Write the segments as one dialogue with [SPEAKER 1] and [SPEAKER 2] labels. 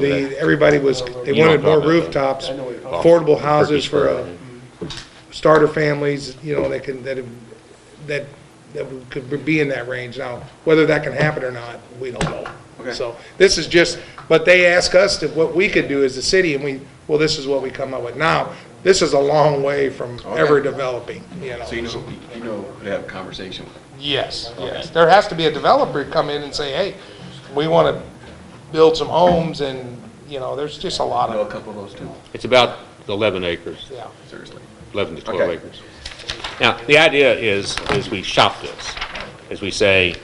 [SPEAKER 1] the, everybody was, they wanted more rooftops, affordable houses for uh, starter families, you know, that can, that, have- that, that could be in that range. Now, whether that can happen or not, we don't know.
[SPEAKER 2] Okay.
[SPEAKER 1] So this is just, but they ask us to, what we could do as a city, and we, well, this is what we come up with. Now, this is a long way from ever developing, you know.
[SPEAKER 2] So you know, you know who to have a conversation with.
[SPEAKER 1] Yes, yes. There has to be a developer come in and say, hey, we want to build some homes and, you know, there's just a lot
[SPEAKER 2] I know
[SPEAKER 1] of,
[SPEAKER 2] a couple of those too,
[SPEAKER 3] It's about 11 acres,
[SPEAKER 1] yeah.
[SPEAKER 2] seriously.
[SPEAKER 3] 11 to 12
[SPEAKER 2] Okay.
[SPEAKER 3] acres. Now, the idea is, is we shop this, is we say,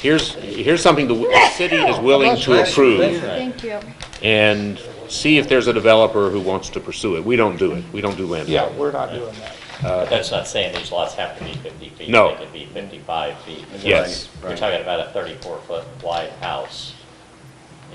[SPEAKER 3] here's, here's something the w- the city is willing to approve,
[SPEAKER 4] Thank you.
[SPEAKER 3] and see if there's a developer who wants to pursue it. We don't do it, we don't do land
[SPEAKER 1] Yeah,
[SPEAKER 3] development.
[SPEAKER 1] we're not doing that.
[SPEAKER 5] But that's not saying these lots have to be 50 feet.
[SPEAKER 3] No.
[SPEAKER 5] They could be 55 feet.
[SPEAKER 3] Yes.
[SPEAKER 5] You're talking about a 34-foot wide house,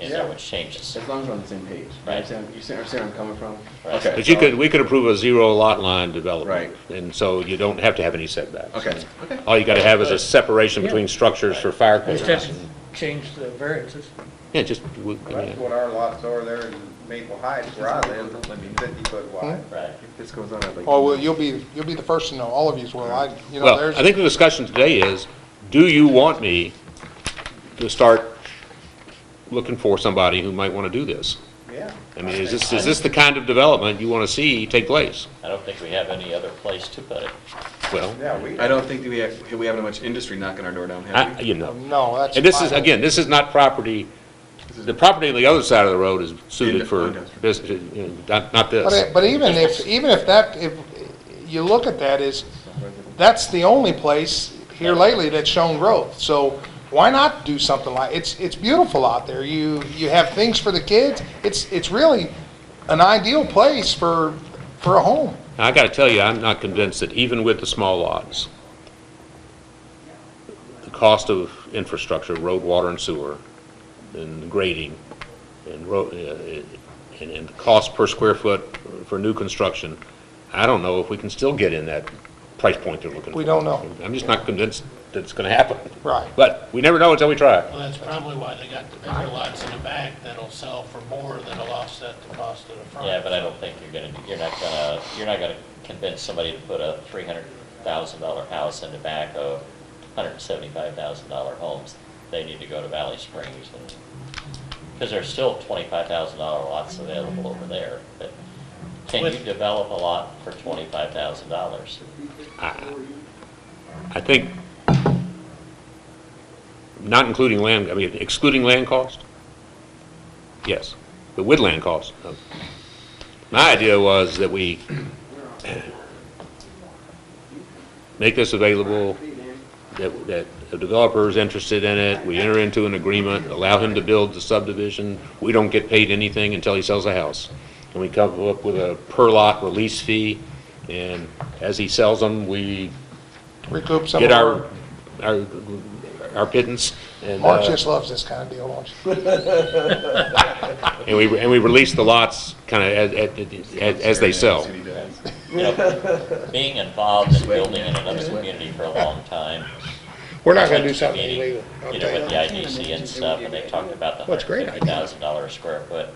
[SPEAKER 5] and that would change the
[SPEAKER 2] As long as we're on the same page. You
[SPEAKER 5] Right.
[SPEAKER 2] understand, you see where I'm coming from?
[SPEAKER 5] Right.
[SPEAKER 2] Okay,
[SPEAKER 3] But you
[SPEAKER 2] so-
[SPEAKER 3] could, we could approve a zero lot line development.
[SPEAKER 2] Right.
[SPEAKER 3] And so you don't have to have any setbacks.
[SPEAKER 2] Okay, okay.
[SPEAKER 3] All you got to have is a separation between structures for fire
[SPEAKER 6] Just
[SPEAKER 3] codes.
[SPEAKER 6] have to change the variances.
[SPEAKER 3] Yeah, just, we- I
[SPEAKER 7] That's
[SPEAKER 3] mean,
[SPEAKER 7] what our lots are there in Maple Heights where I live, it's fifty foot wide.
[SPEAKER 5] Right.
[SPEAKER 2] If this goes on, I'd like.
[SPEAKER 1] Oh, well, you'll be, you'll be the first to know, all of yous will, I, you know,
[SPEAKER 3] well,
[SPEAKER 1] there's.
[SPEAKER 3] I think the discussion today is, do you want me to start looking for somebody who might want to do this?
[SPEAKER 7] Yeah.
[SPEAKER 3] I mean, is this, is this the kind of development you want to see take place?
[SPEAKER 5] I don't think we have any other place to put it.
[SPEAKER 3] Well,
[SPEAKER 7] Yeah, we,
[SPEAKER 2] I don't think that we have, we have much industry knocking our door down, have
[SPEAKER 3] I,
[SPEAKER 2] we?
[SPEAKER 3] you know.
[SPEAKER 1] No, that's.
[SPEAKER 3] And this is,
[SPEAKER 1] fine.
[SPEAKER 3] again, this is not property, the property on the other side of the road is suited for
[SPEAKER 2] Industrial.
[SPEAKER 3] business, you know, not, not
[SPEAKER 1] But,
[SPEAKER 3] this.
[SPEAKER 1] it- but even if, even if that, if you look at that is, that's the only place here lately that's shown growth. So why not do something like, it's, it's beautiful out there. You, you have things for the kids. It's, it's really an ideal place for, for a home.
[SPEAKER 3] I got to tell you, I'm not convinced that even with the small lots, the cost of infrastructure, road, water, and sewer, and grading, and road, and, and the cost per square foot for new construction, I don't know if we can still get in that price point they're looking for.
[SPEAKER 1] We don't know.
[SPEAKER 3] I'm just not convinced that it's going to happen.
[SPEAKER 1] Right.
[SPEAKER 3] But we never know until we try.
[SPEAKER 8] Well, that's probably why they got the bigger lots in the back that'll sell for more that'll offset the cost of the front.
[SPEAKER 5] Yeah, but I don't think you're gonna, do- you're not gonna, you're not gonna convince somebody to put a $300,000 house in the back of $175,000 homes. They need to go to Valley Springs and, because there's still $25,000 lots available over there. But Can you
[SPEAKER 8] With-
[SPEAKER 5] develop a lot for $25,000?
[SPEAKER 3] I think, not including land, I mean, excluding land cost? Yes, but with land cost. no. My idea was that we make this available, that, that the developer is interested in it, we enter into an agreement, allow him to build the subdivision, we don't get paid anything until he sells the house. And we come up with a per lot release fee, and as he sells them, we
[SPEAKER 1] Recoup some of
[SPEAKER 3] get our,
[SPEAKER 1] our,
[SPEAKER 3] our, our pittance, and,
[SPEAKER 1] Mark
[SPEAKER 3] uh,
[SPEAKER 1] just loves this kind of deal, don't you?
[SPEAKER 3] uh, and we, and we release the lots kind of as, as, as they sell.
[SPEAKER 2] City does.
[SPEAKER 5] you know, being involved in building in another community for a long time.
[SPEAKER 1] We're not gonna do
[SPEAKER 5] I went to a
[SPEAKER 1] something
[SPEAKER 5] meeting,
[SPEAKER 1] illegal, I'll
[SPEAKER 5] You know,
[SPEAKER 1] tell
[SPEAKER 5] with the
[SPEAKER 1] you.
[SPEAKER 5] IDC and stuff, and they talked about the
[SPEAKER 1] Well, it's a great
[SPEAKER 5] hundred fifty
[SPEAKER 1] idea.
[SPEAKER 5] thousand dollar square foot.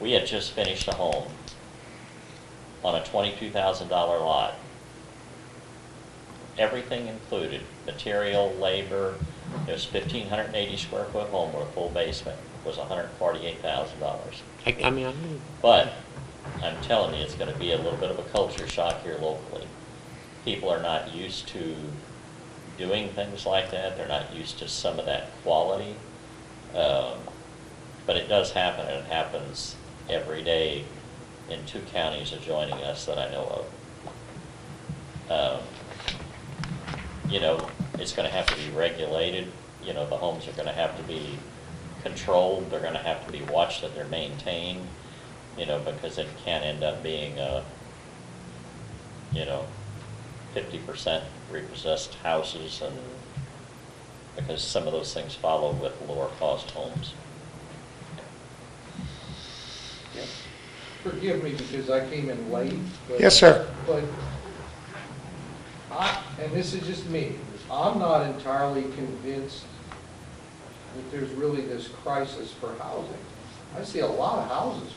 [SPEAKER 5] We had just finished a home on a twenty-two thousand dollar lot. Everything included, material, labor, it was fifteen hundred and eighty square foot home with a full basement, was hundred and forty-eight thousand dollars.
[SPEAKER 3] I, I mean, I-
[SPEAKER 5] But I'm telling you, it's gonna be a little bit of a culture shock here locally. People are not used to doing things like that. They're not used to some of that quality. Um, But it does happen, and it happens every day in two counties adjoining us that I know of. Um, You know, it's gonna have to be regulated, you know, the homes are gonna have to be controlled, they're gonna have to be watched that they're maintained, you know, because it can end up being a, you know, fifty percent repossessed houses and, because some of those things follow with lower cost homes.
[SPEAKER 9] Forgive me because I came in late, but.
[SPEAKER 1] Yes, sir.
[SPEAKER 9] But I, and this is just me, I'm not entirely convinced that there's really this crisis for housing.
[SPEAKER 1] I see a lot of houses